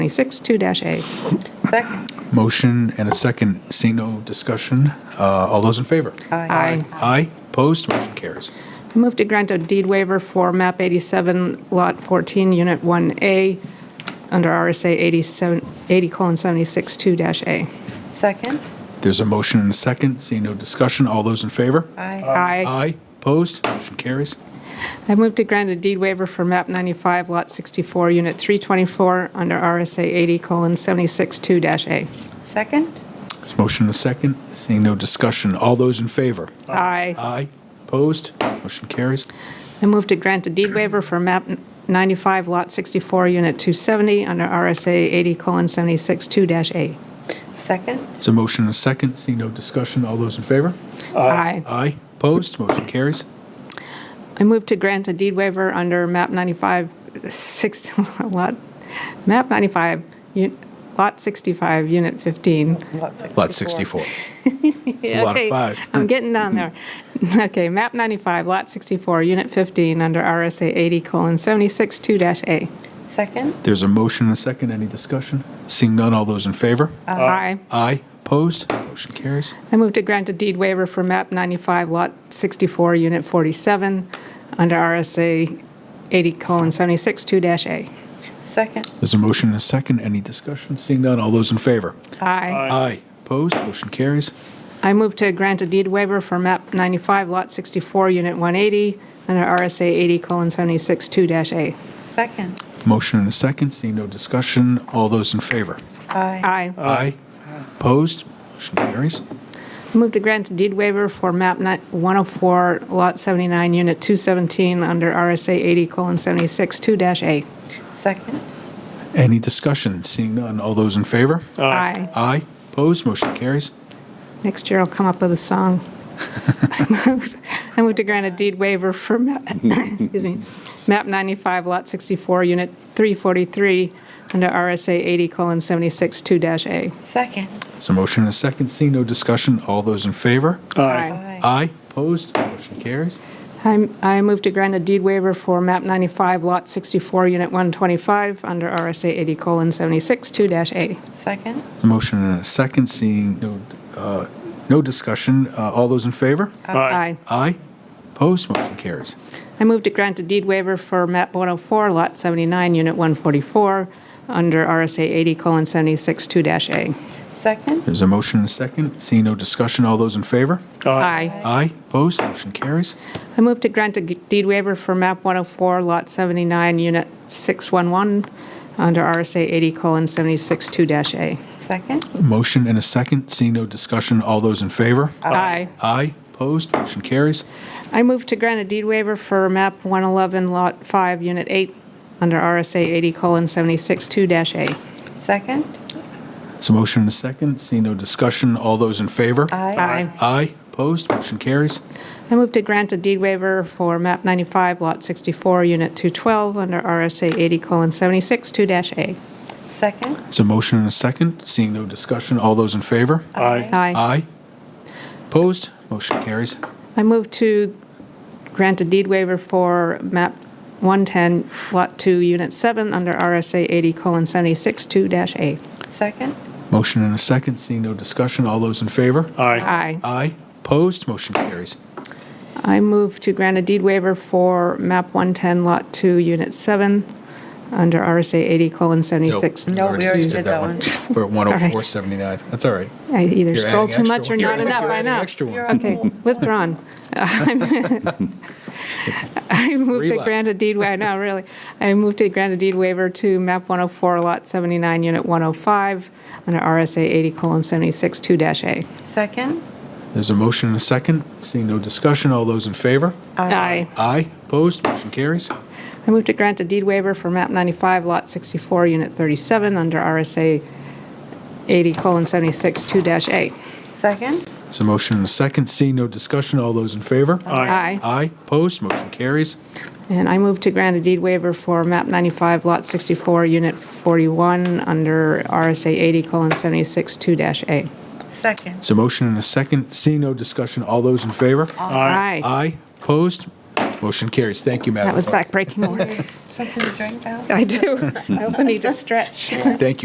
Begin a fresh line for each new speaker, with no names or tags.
2026-2-A.
Second.
Motion and a second, see no discussion. Uh, All those in favor?
Aye.
Aye, opposed, motion carries.
I move to grant a deed waiver for MAP 87, Lot 14, Unit 1A, under RSA 87 80:762-A.
Second.
There's a motion and a second, see no discussion. All those in favor?
Aye.
Aye.
Aye, opposed, motion carries.
I move to grant a deed waiver for MAP 95, Lot 64, Unit 324, under RSA 80:762-A.
Second.
There's a motion and a second, seeing no discussion. All those in favor?
Aye.
Aye, opposed, motion carries.
I move to grant a deed waiver for MAP 95, Lot 64, Unit 270, under RSA 80:762-A.
Second.
There's a motion and a second, seeing no discussion. All those in favor?
Aye.
Aye, opposed, motion carries.
I move to grant a deed waiver under MAP 95, 6, lot, MAP 95, un- Lot 65, Unit 15.
Lot 64. It's a lot of
Okay,
fives.
I'm getting down there. Okay, MAP 95, Lot 64, Unit 15, under RSA 80:762-A.
Second.
There's a motion and a second. Any discussion? Seeing none, all those in favor?
Aye.
Aye. Opposed? Motion carries.
I move to grant a deed waiver for MAP 95, Lot 64, Unit 47, under RSA 80:762-A.
Second.
There's a motion and a second. Any discussion? Seeing none, all those in favor?
Aye.
Aye. Opposed? Motion carries.
I move to grant a deed waiver for MAP 95, Lot 64, Unit 180, under RSA 80:762-A.
Second.
Motion and a second. Seeing no discussion, all those in favor?
Aye.
Aye.
Aye. Opposed? Motion carries.
I move to grant a deed waiver for MAP ni- 104, Lot 79, Unit 217, under RSA 80:762-A.
Second.
Any discussion? Seeing none, all those in favor?
Aye.
Aye. Opposed? Motion carries.
Next year I'll come up with a song. I move- I move to grant a deed waiver for, map- excuse me, MAP 95, Lot 64, Unit 343, under RSA 80:762-A.
Second.
There's a motion and a second. Seeing no discussion, all those in favor? Aye. Opposed? Motion carries.
I'm- I move to grant a deed waiver for MAP 95, Lot 64, Unit 125, under RSA 80:762-A.
Second.
A motion and a second, seeing no, uh, no discussion. Uh, All those in favor?
Aye.
Aye. Opposed, motion carries.
I move to grant a deed waiver for MAP 104, Lot 79, Unit 144, under RSA 80:762-A.
Second.
There's a motion and a second, seeing no discussion. All those in favor?
Aye.
Aye. Opposed, motion carries.
I move to grant a g- deed waiver for MAP 104, Lot 79, Unit 611, under RSA 80:762-A.
Second.
A motion and a second, seeing no discussion. All those in favor?
Aye.
Aye. Opposed, motion carries.
I move to grant a deed waiver for MAP 111, Lot 5, Unit 8, under RSA 80:762-A.
Second.
There's a motion and a second, seeing no discussion. All those in favor?
Aye.
Aye. Opposed, motion carries.
I move to grant a deed waiver for MAP 95, Lot 64, Unit 212, under RSA 80:762-A.
Second.
There's a motion and a second, seeing no discussion. All those in favor?
Aye.
Aye. Opposed? Motion carries.
I move to grant a deed waiver for MAP 110, Lot 2, Unit 7, under RSA 80:762-A.
Second.
Motion and a second, seeing no discussion. All those in favor?
Aye.
Aye. Opposed? Motion carries.
I move to grant a deed waiver for MAP 110, Lot 2, Unit 7, under RSA 80:76.
No, we already did that one.
We're at
right.
10479. That's all right.
I either
You're
scroll
adding
too
extra
much or
ones.
not
You're
enough, I
adding
know.
extra ones.
Okay, withdrawn. I move
Three
to
left.
grant a deed, wa- I know, really. I move to grant a deed waiver to MAP 104, Lot 79, Unit 105, under RSA 80:762-A.
Second.
There's a motion and a second, seeing no discussion. All those in favor?
Aye.
Aye. Opposed? Motion carries.
I move to grant a deed waiver for MAP 95, Lot 64, Unit 37, under RSA 80:762-A.
Second.
There's a motion and a second, seeing no discussion. All those in favor?
Aye.
Aye. Opposed? Motion carries.
And I move to grant a deed waiver for MAP 95, Lot 64, Unit 41, under RSA 80:762-A.
Second.
There's a motion and a second, seeing no discussion. All those in favor?
Aye.
Aye. Opposed? Motion carries. Thank you, Madam
That was
Clerk.
backbreaking work.
Something to drink now?
I do. I also need to stretch.
Thank you.